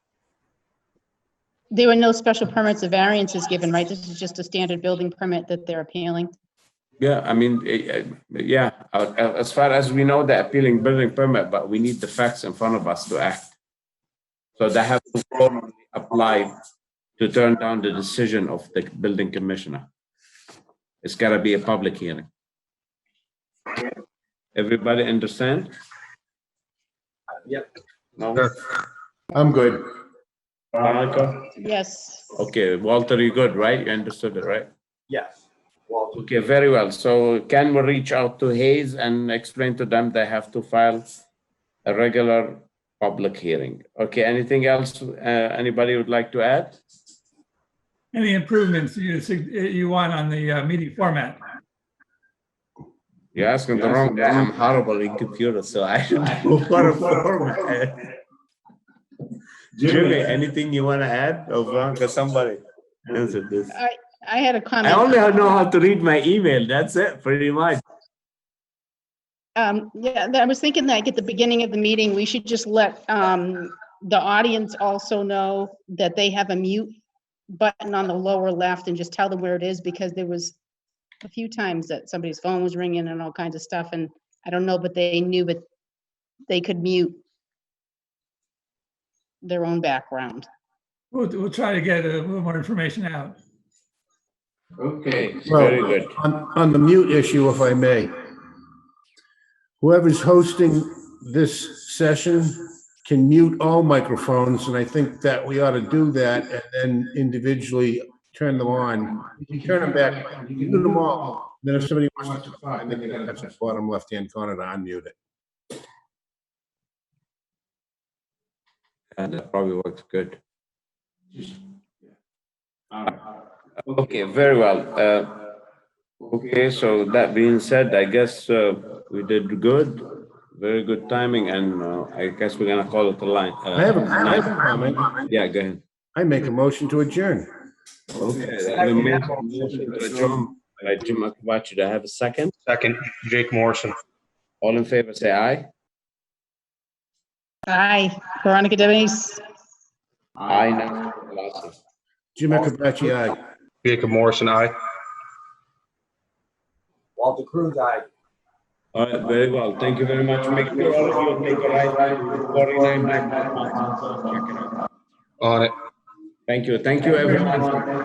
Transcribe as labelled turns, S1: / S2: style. S1: There were no special permits or variances given, right? This is just a standard building permit that they're appealing.
S2: Yeah, I mean, eh, eh, yeah, uh, uh, as far as we know, the appealing building permit, but we need the facts in front of us to act. So they have to formally apply to turn down the decision of the building commissioner. It's gotta be a public hearing. Everybody understand?
S3: Yep.
S2: No?
S4: I'm good.
S2: Veronica?
S1: Yes.
S2: Okay, Walter, you good, right? You understood it, right?
S3: Yes. Well,
S2: Okay, very well. So Ken will reach out to Hayes and explain to them they have to file a regular public hearing. Okay, anything else, uh, anybody would like to add?
S5: Any improvements you, sug- you want on the uh, meeting format?
S2: You're asking the wrong guy. I'm horrible in computers, so I don't. Jimmy, anything you want to add or Veronica, somebody? Answer this.
S1: I had a
S2: I
S1: comment.
S2: only know how to read my email. That's it, pretty much.
S1: Um, yeah, that- I was thinking like at the beginning of the meeting, we should just let, um, the audience also know that they have a mute button on the lower left and just tell them where it is because there was a few times that somebody's phone was ringing and all kinds of stuff and I don't know, but they knew, but they could mute their own background.
S5: We'll, we'll try to get a little more information out.
S2: Okay,
S4: Well,
S2: very good.
S4: On, on the mute issue, if I may. Whoever's hosting this session can mute all microphones, and I think that we ought to do that and then individually turn them on. You can turn them back, you can do them all. Then if somebody wants to talk, then they gotta touch the bottom left-hand corner to unmute it.
S2: And that probably works good. Uh, Okay, very well. Uh, Okay, so that being said, I guess uh, we did good, very good timing, and uh, I guess we're gonna call it a line. uh,
S4: I have a, I have a comment.
S2: Yeah, go ahead.
S4: I make a motion to adjourn.
S2: Okay, the motion to adjourn By Jim Akabachi, do I have a second?
S3: second, Jake Morrison.
S2: All in favor, say aye.
S1: Hi, Veronica Debonese.
S2: Aye. Nancy Pelosi.
S4: Jim Akabachi, aye.
S3: Jacob Morrison, aye.
S6: Walter Cruz, I.
S2: All right, very well. Thank you very much. Make sure all of you take a ride, ride, forty-nine Black Hawk.
S3: On it.
S2: Thank you, thank you, everyone.